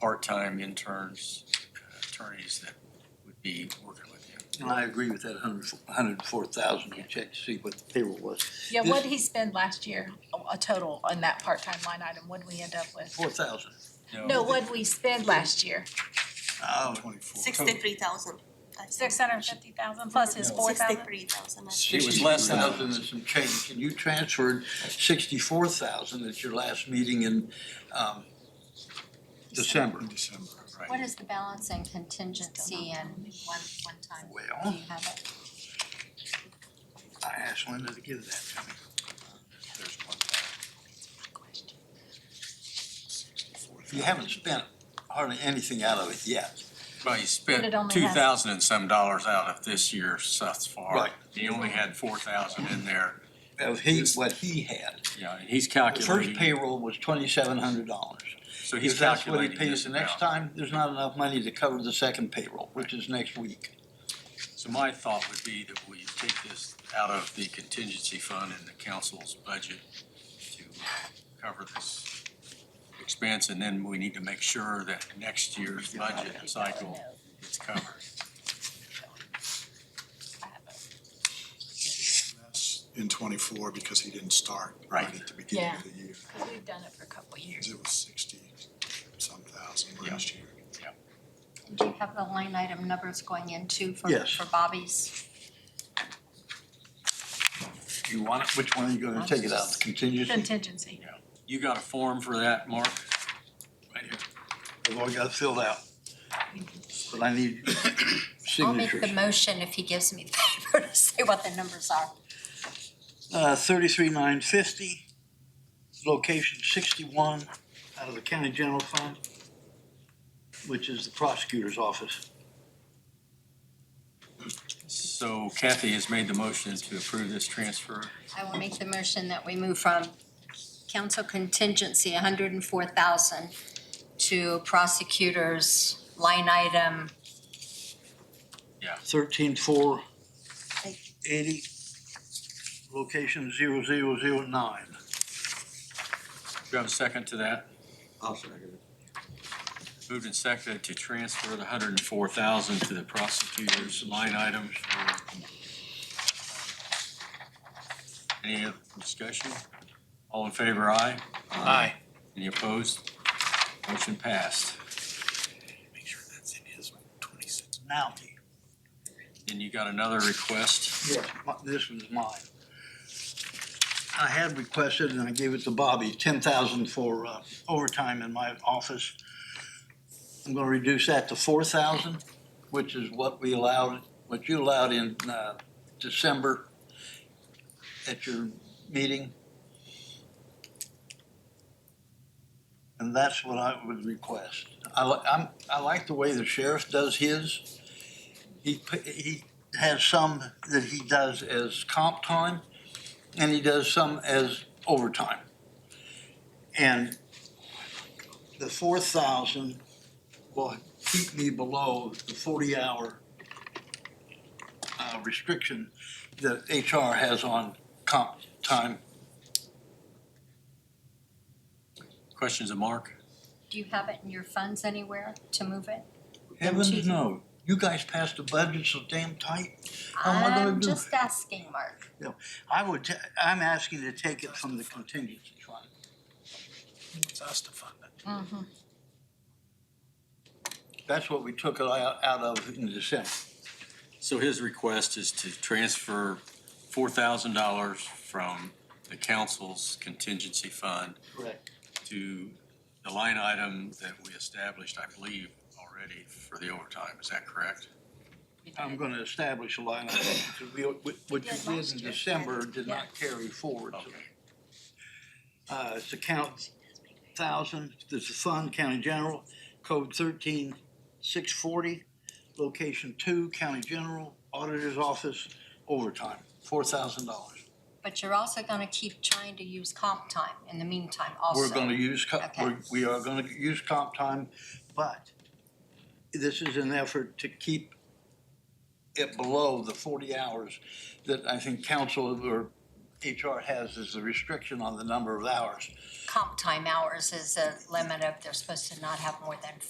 part-time interns, uh, attorneys that would be working with you. And I agree with that hundred, hundred and four thousand, you check to see what the payroll was, Yeah, This- what did he spend last year, a- a total on that part-time line item, what did we end up with? four thousand. No, what did we spend last year? Oh, Twenty-four. Sixty-three thousand. Six hundred and fifty thousand plus his four thousand? Sixty-three thousand. It was less than- 63,000 and some change, and you transferred sixty-four thousand at your last meeting in, um, December. In December, What right. is the balance and contingency and one, one time? Do Well, you have it? I asked Linda to give that to me. There's one time. You haven't spent hardly anything out of it yet. Well, you But spent it only two has- thousand and some dollars out of this year thus far. Right. He only had four thousand in there, Of he, what he had. yeah, and he's The first calculating, payroll was twenty-seven hundred dollars. so he's If that's what he calculating pays this the amount. next time, there's not enough money to cover the second payroll, which is next week. So my thought would be that we take this out of the contingency fund in the council's budget to uh, cover this expense, and then we need to make sure that next year's budget cycle is covered. less in twenty-four because he didn't start Right. right at the beginning of the year. We've done it for a couple of years. It was sixty-some thousand Yeah. last year. Do you have the line item numbers going into for, Yes. for Bobby's? You want it, which one are you gonna take it out, the contingency? Contingency. You got a form for that, Mark? Right here. I've already got it filled out, but I need I'll make the signatures. motion if he gives me the paper to say what the numbers are. Uh, thirty-three nine fifty, location sixty-one, out of the county general fund, which is the prosecutor's office. So Kathy has made the motion to approve this transfer. I will make the motion that we move from council contingency, hundred and four thousand, to prosecutors line item, Thirteen four eighty, location zero zero zero nine. Do you have a second to that? I'll second Moved and seconded to transfer the hundred and four thousand to the prosecutor's line item for. Any other discussion? All in favor, aye? Aye. Any opposed? Motion passed. Make sure that's in his twenty-six. Now, Then you got another request. Yes, mi- this one's mine. I had requested, and I gave it to Bobby, ten thousand for uh, overtime in my office. I'm gonna reduce that to four thousand, which is what we allowed, what you allowed in uh, December at your meeting. And that's what I would request. I li- I'm, I like the way the sheriff does his. He, p- he has some that he does as comp time, and he does some as overtime. And the four thousand will keep me below the forty-hour uh, restriction that HR has on comp time. Questions of Mark? do you have it in your funds anywhere to move it? Heavens, no, you guys passed a budget so damn tight. How am I gonna I'm Oh, do just asking, Mark. I would, ta- I'm asking to take it from the contingency fund. It's us to fund it. Mhm. That's what we took it out out of in December. So his request is to transfer four thousand dollars from the council's contingency fund Correct. to the line item that we established, I believe, already for the overtime. Is that correct? I'm gonna establish a line item, because we, what you Did did last in year. December did not carry forward. Okay. Uh, it's account thousand, this is fund, county general, code thirteen six forty, location two, county general, auditor's office, overtime, four thousand dollars. But you're also gonna keep trying to use comp time in the meantime also. We're gonna use, co- Okay. we're- we are gonna use comp time, but this is an effort to keep it below the forty hours that I think council or HR has as a restriction on the number of hours. Comp time hours is a limit of, they're supposed to not have more than